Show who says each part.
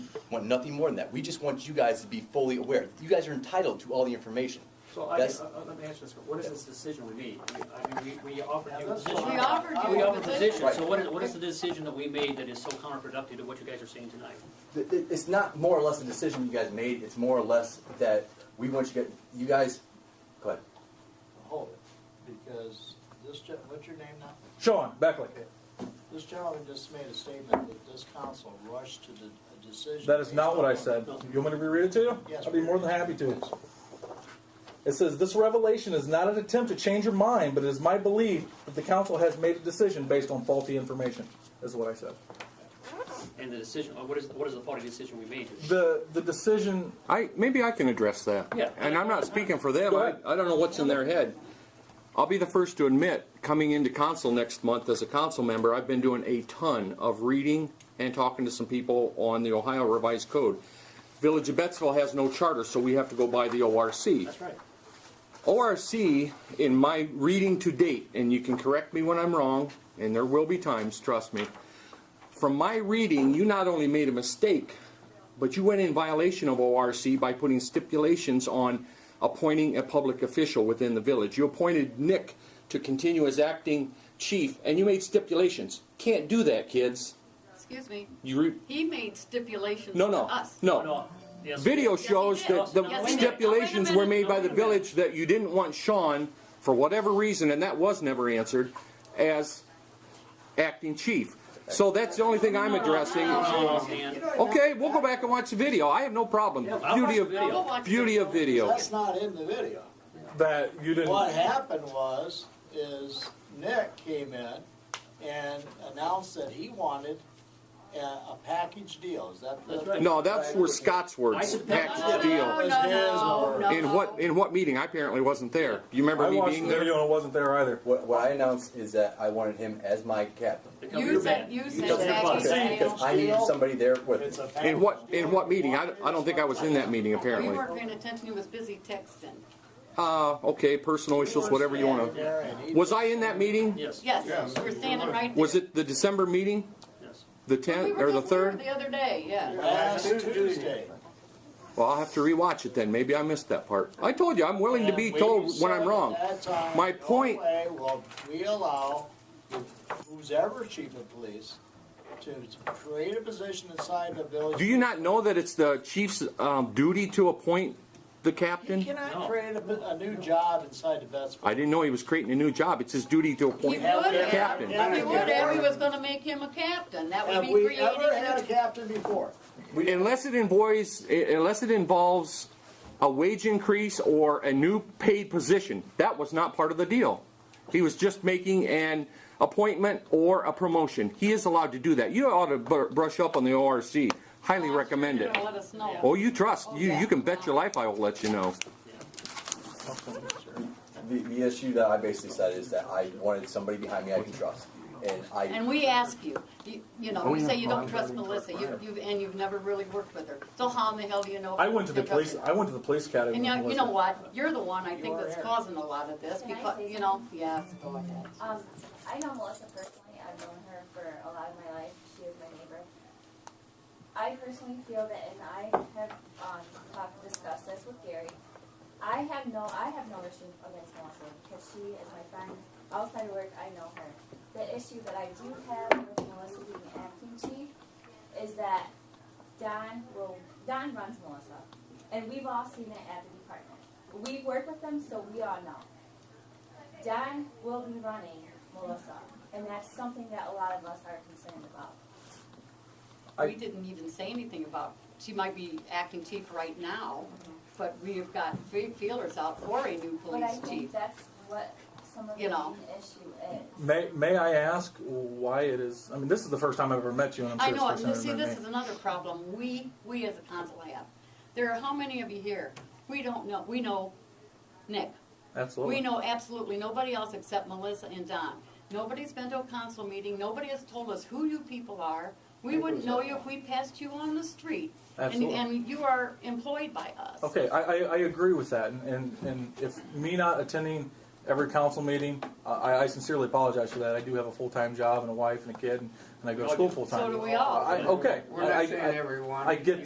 Speaker 1: want nothing more than that. We just want you guys to be fully aware. You guys are entitled to all the information.
Speaker 2: So I, uh,
Speaker 1: That's-
Speaker 2: uh, let me ask you this, what is this decision we need? I mean, we, we offered you a position.
Speaker 3: We offered you
Speaker 2: We
Speaker 3: a
Speaker 2: offered a position,
Speaker 3: position.
Speaker 2: so what is, what is the decision that we made that is so counterproductive to what you guys are saying tonight?
Speaker 1: Th- th- It's not more or less a decision you guys made, it's more or less that we want you guys, you guys, go ahead.
Speaker 4: hold it, because this, gen- what's your name now?
Speaker 5: Sean Beckley,
Speaker 4: This gentleman just made a statement that this council rushed to the a decision.
Speaker 5: that is not what I said. You want me to reread it to you?
Speaker 4: Yes.
Speaker 5: I'd be more than happy to. It says, "This revelation is not an attempt to change your mind, but it is my belief that the council has made a decision based on faulty information." Is what I said.
Speaker 2: And the decision, uh, what is, what is the faulty decision we made?
Speaker 5: The the decision
Speaker 6: I, maybe I can address that.
Speaker 2: Yeah.
Speaker 6: And I'm not speaking for them.
Speaker 5: Go
Speaker 6: I,
Speaker 5: ahead.
Speaker 6: I don't know what's in their head. I'll be the first to admit, coming into council next month as a council member, I've been doing a ton of reading and talking to some people on the Ohio Revised Code. Village of Bettsville has no charter, so we have to go by the ORC.
Speaker 4: That's right.
Speaker 6: ORC, in my reading to date, and you can correct me when I'm wrong, and there will be times, trust me, from my reading, you not only made a mistake, but you went in violation of ORC by putting stipulations on appointing a public official within the village. You appointed Nick to continue as acting chief, and you made stipulations. Can't do that, kids.
Speaker 3: Excuse me,
Speaker 6: You re-
Speaker 3: he made stipulations
Speaker 6: no,
Speaker 3: to
Speaker 6: no,
Speaker 3: us.
Speaker 6: no.
Speaker 2: No, yes.
Speaker 6: Video
Speaker 3: he
Speaker 6: shows
Speaker 3: did.
Speaker 6: that the
Speaker 3: Yes, he did.
Speaker 6: stipulations
Speaker 3: Now, wait a
Speaker 6: were made
Speaker 3: minute.
Speaker 6: by
Speaker 2: Now,
Speaker 6: the
Speaker 2: wait a minute.
Speaker 6: village that you didn't want Sean, for whatever reason, and that was never answered, as acting chief. So that's the only thing I'm addressing.
Speaker 2: No, no, Dan.
Speaker 6: Okay, we'll go back and watch the video. I have no problem.
Speaker 2: I'll
Speaker 6: Beauty
Speaker 2: watch the video.
Speaker 3: We'll
Speaker 6: of,
Speaker 3: watch
Speaker 6: beauty
Speaker 3: the
Speaker 6: of video.
Speaker 4: That's not in the video.
Speaker 5: that you didn't.
Speaker 4: What happened was, is Nick came in and announced that he wanted a, a package deal, is that the?
Speaker 2: That's right.
Speaker 6: No, that's were Scott's words,
Speaker 3: No,
Speaker 6: package
Speaker 3: no,
Speaker 6: deal.
Speaker 3: no, no, no.
Speaker 6: In what, in what meeting? I apparently wasn't there. Do you remember
Speaker 5: I
Speaker 6: me
Speaker 5: watched
Speaker 6: being
Speaker 5: the
Speaker 6: there?
Speaker 5: video and it wasn't there either.
Speaker 1: What, what I announced is that I wanted him as my captain.
Speaker 2: Become your
Speaker 3: You
Speaker 2: man.
Speaker 3: said, you
Speaker 1: Because
Speaker 3: said that, you said
Speaker 1: because I needed somebody there with
Speaker 4: It's
Speaker 1: me.
Speaker 4: a
Speaker 6: In
Speaker 4: package
Speaker 6: what,
Speaker 4: deal.
Speaker 6: in what meeting? I, I don't think I was in that meeting,
Speaker 3: You
Speaker 6: apparently.
Speaker 3: weren't paying attention, he was busy texting.
Speaker 6: Uh, okay, personal issues, whatever you want to.
Speaker 4: There, and he
Speaker 6: Was I in that meeting?
Speaker 2: Yes.
Speaker 3: Yes, you were standing right there.
Speaker 6: Was it the December meeting?
Speaker 2: Yes.
Speaker 6: The
Speaker 3: We
Speaker 6: 10th
Speaker 3: were
Speaker 6: or the
Speaker 3: just there
Speaker 6: 3rd?
Speaker 3: The other day, yeah.
Speaker 4: Last Tuesday.
Speaker 6: Well, I'll have to rewatch it then. Maybe I missed that part. I told you, I'm willing to be
Speaker 4: And we
Speaker 6: told when
Speaker 4: said
Speaker 6: I'm
Speaker 4: at
Speaker 6: wrong.
Speaker 4: that time,
Speaker 6: My
Speaker 4: no
Speaker 6: point-
Speaker 4: way will we allow who's ever chief of police to create a position inside the village?
Speaker 6: Do you not know that it's the chief's um, duty to appoint the
Speaker 4: You
Speaker 6: captain?
Speaker 2: No.
Speaker 4: cannot create a, a new job inside the Vetsville.
Speaker 6: I didn't know he was creating a new job. It's his duty
Speaker 3: He
Speaker 6: to
Speaker 3: would
Speaker 6: appoint.
Speaker 3: have,
Speaker 6: Captain.
Speaker 3: he would have, he was gonna make him a captain, that would
Speaker 4: Have
Speaker 3: be
Speaker 4: we
Speaker 3: creating.
Speaker 4: ever
Speaker 3: a
Speaker 4: had
Speaker 3: new-
Speaker 4: a captain before?
Speaker 6: Unless it involves, unless it involves a wage increase or a new paid position, that was not part of the deal. He was just making an appointment or a promotion. He is allowed to do that. You ought to br- brush up on the ORC. Highly recommend it.
Speaker 3: You're gonna Let us know.
Speaker 6: Oh, you trust. You, you can bet your life I will let you know.
Speaker 1: The, the issue that I basically said is that I wanted somebody behind me I can trust. And I,
Speaker 3: And we ask you, you, you
Speaker 5: Oh,
Speaker 3: know, you say you don't trust Melissa, you, you, and you've never really worked with her, so how in the hell do you know?
Speaker 5: I went to the
Speaker 3: if you're
Speaker 5: police.
Speaker 3: trusted?
Speaker 5: I went to the police academy.
Speaker 3: And you
Speaker 5: when
Speaker 3: know,
Speaker 5: it
Speaker 3: you know
Speaker 5: wasn't.
Speaker 3: what, you're the one I think
Speaker 4: You are
Speaker 3: that's
Speaker 4: here.
Speaker 3: causing a lot of this,
Speaker 7: Can I
Speaker 3: because,
Speaker 7: say
Speaker 3: you know, yes, go ahead.
Speaker 7: Um, I know Melissa personally. I've known her for a lot of my life. She is my neighbor. I personally feel that, and I have um, talked, discussed this with Gary. I have no, I have no issue against Melissa because she is my friend. Outside of work, I know her. The issue that I do have with Melissa being acting chief is that Don will, Don runs Melissa, and we've all seen it at the department. We work with them, so we all know. Don will be running Melissa, and that's something that a lot of us are concerned about.
Speaker 5: I-
Speaker 3: We didn't even say anything about, she might be acting chief right now, but we have got three feelers out for a new
Speaker 7: Mm-hmm. But I
Speaker 3: police chief.
Speaker 7: think that's what some of the
Speaker 3: You know.
Speaker 7: main issue is.
Speaker 5: May, may I ask why it is? I mean, this is the first time I've ever met you, and I'm sure
Speaker 3: I know,
Speaker 5: it's the
Speaker 3: and
Speaker 5: first
Speaker 3: see,
Speaker 5: time you've ever
Speaker 3: this
Speaker 5: met
Speaker 3: is
Speaker 5: me.
Speaker 3: another problem, we, we as a council have. There are how many of you here? We don't know, we know Nick,
Speaker 5: Absolutely.
Speaker 3: We know absolutely nobody else except Melissa and Don. Nobody's been to a council meeting, nobody has told us who you people are. We wouldn't know you if we passed you on the street. And,
Speaker 5: Absolutely.
Speaker 3: and you are employed by us.
Speaker 5: Okay, I, I, I agree with that, and, and, and if me not attending every council meeting, uh, I, I sincerely apologize for that. I do have a full-time job and a wife and a kid, and, and I go to school full-time.
Speaker 3: So do we all.
Speaker 5: I, okay.
Speaker 8: We're not
Speaker 5: I- I-
Speaker 8: saying everyone.
Speaker 5: I get